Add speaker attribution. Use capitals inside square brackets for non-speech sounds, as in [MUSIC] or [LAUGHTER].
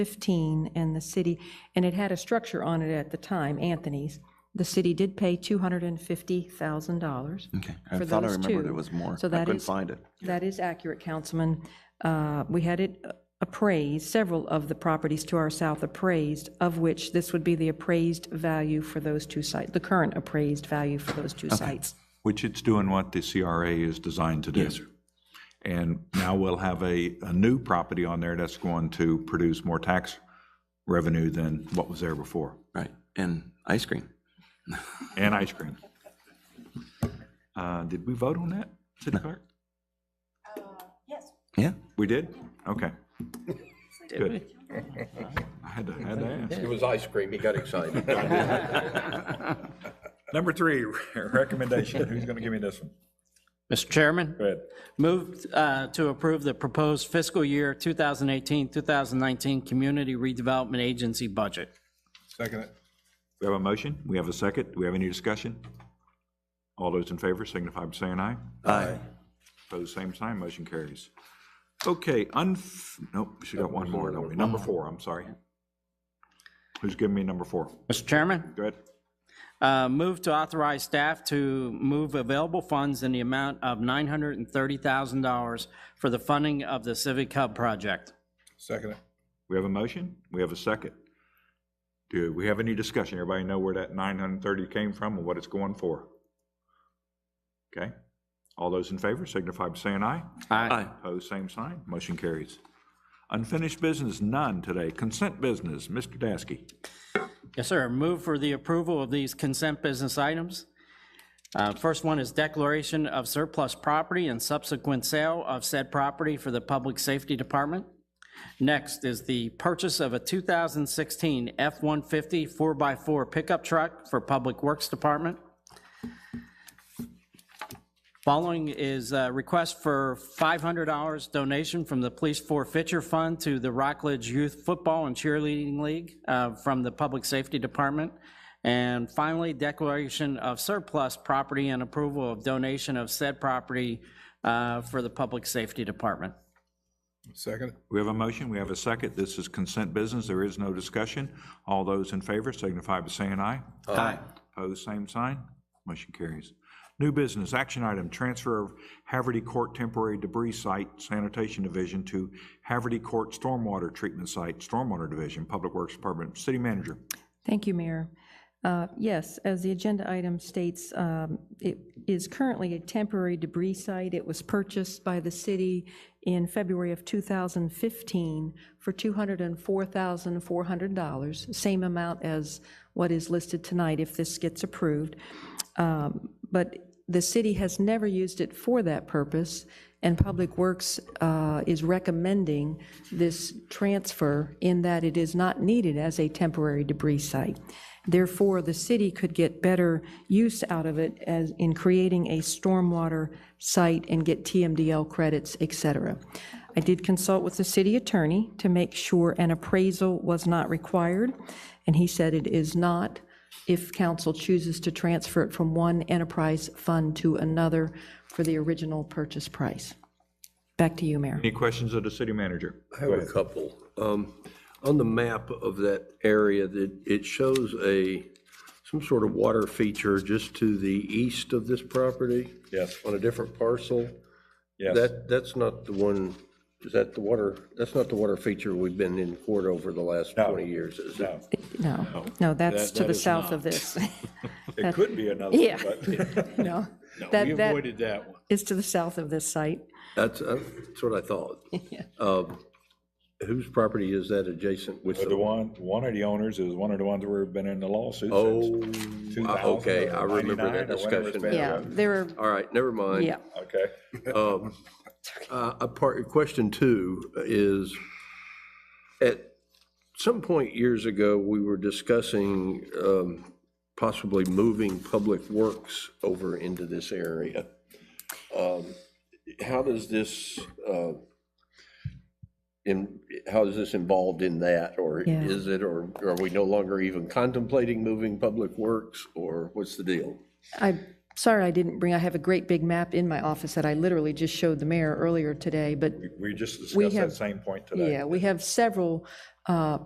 Speaker 1: 15, and the city, and it had a structure on it at the time, Anthony's. The city did pay $250,000.
Speaker 2: Okay, I
Speaker 1: for
Speaker 2: thought I
Speaker 1: those
Speaker 2: remembered
Speaker 1: two.
Speaker 2: it was more. I
Speaker 1: So that
Speaker 2: couldn't
Speaker 1: is-
Speaker 2: find it.
Speaker 1: That is accurate, Councilman. Uh, We had it appraised, several of the properties to our south appraised, of which this would be the appraised value for those two sites, the current appraised value for those two sites.
Speaker 3: Which it's doing what the CRA is designed to do. Yes, sir. And now we'll have a, a new property on there that's going to produce more tax revenue than what was there before,
Speaker 2: Right, and ice cream.
Speaker 3: and ice cream. Uh, Did we vote on that, City Clerk?
Speaker 2: Yeah.
Speaker 3: We did? Okay. Good. I had to, I had to ask.
Speaker 4: It was ice cream, he got excited.
Speaker 3: Number three, recommendation. Who's going to give me this one?
Speaker 5: Mr. Chairman,
Speaker 3: Go ahead.
Speaker 5: move uh, to approve the proposed fiscal year 2018-2019 Community Redevelopment Agency budget.
Speaker 3: We have a motion, we have a second, do we have any discussion? All those in favor signify by saying aye.
Speaker 2: Aye.
Speaker 3: Opposed, same sign, motion carries. Okay, unf, nope, she got one more, don't we? Number four, I'm sorry. Who's giving me number four?
Speaker 5: Mr. Chairman,
Speaker 3: Go ahead.
Speaker 5: uh, move to authorize staff to move available funds in the amount of $930,000 for the funding of the Civic Hub project.
Speaker 3: We have a motion, we have a second. Do we have any discussion? Everybody know where that 930 came from and what it's going for? Okay, all those in favor signify by saying aye.
Speaker 2: Aye.
Speaker 3: Opposed, same sign. Motion carries. Unfinished business, none today. Consent business, Mr. Dasky.
Speaker 5: Yes, sir. Move for the approval of these consent business items. Uh, First one is declaration of surplus property and subsequent sale of said property for the Public Safety Department. Next is the purchase of a 2016 F-150 4x4 pickup truck for Public Works Department. Following is a request for $500 donation from the Police Forfeiture Fund to the Rockledge Youth Football and Cheerleading League uh, from the Public Safety Department. And finally, declaration of surplus property and approval of donation of said property uh, for the Public Safety Department.
Speaker 3: We have a motion, we have a second. This is consent business. There is no discussion. All those in favor signify by saying aye.
Speaker 2: Aye.
Speaker 3: Opposed, same sign. Motion carries. New business, action item, transfer of Haverty Court temporary debris site sanitation division to Haverty Court stormwater treatment site, stormwater division, Public Works Department, City Manager.
Speaker 1: Thank you, Mayor. Uh, Yes, as the agenda item states, um, it is currently a temporary debris site. It was purchased by the city in February of 2015 for $204,400, same amount as what is listed tonight if this gets approved. Um, But the city has never used it for that purpose, and Public Works uh, is recommending this transfer in that it is not needed as a temporary debris site. Therefore, the city could get better use out of it as, in creating a stormwater site and get TMDL credits, et cetera. I did consult with the city attorney to make sure an appraisal was not required, and he said it is not if council chooses to transfer it from one enterprise fund to another for the original purchase price. Back to you, Mayor.
Speaker 3: Any questions of the City Manager?
Speaker 4: I have a couple. Um, On the map of that area, that it shows a, some sort of water feature just to the east of this property?
Speaker 3: Yes.
Speaker 4: On a different parcel?
Speaker 3: Yes.
Speaker 4: That, that's not the one, is that the water, that's not the water feature we've been in court over the last 20 years, is it?
Speaker 1: No, no, that's to the south of this.
Speaker 3: It could be another,
Speaker 1: Yeah.
Speaker 3: but.
Speaker 1: [LAUGHS]
Speaker 3: [LAUGHS]
Speaker 1: No.
Speaker 6: We
Speaker 1: That, that
Speaker 6: avoided that one.
Speaker 1: is to the south of this site.
Speaker 4: That's, uh, that's what I thought. Um, Whose property is that adjacent with
Speaker 3: The
Speaker 4: Oh, the?
Speaker 3: one, one of the owners is one of the ones who've been in the lawsuit
Speaker 4: Oh,
Speaker 3: since two
Speaker 4: I-
Speaker 3: thousand.
Speaker 4: okay, I remember that discussion.
Speaker 1: Yeah, there are,
Speaker 4: all right, never mind.
Speaker 1: yeah.
Speaker 3: Okay.
Speaker 4: Uh, A part, question two is, at some point years ago, we were discussing um, possibly moving Public Works over into this area. Um, How does this, uh, in, how is this involved in that? Or
Speaker 1: Yeah.
Speaker 4: is it, or are we no longer even contemplating moving Public Works, or what's the deal?
Speaker 1: I'm sorry I didn't bring, I have a great big map in my office that I literally just showed the mayor earlier today, but
Speaker 3: We just
Speaker 1: We
Speaker 3: discussed that
Speaker 1: have-
Speaker 3: same point today.
Speaker 1: yeah, we have several uh,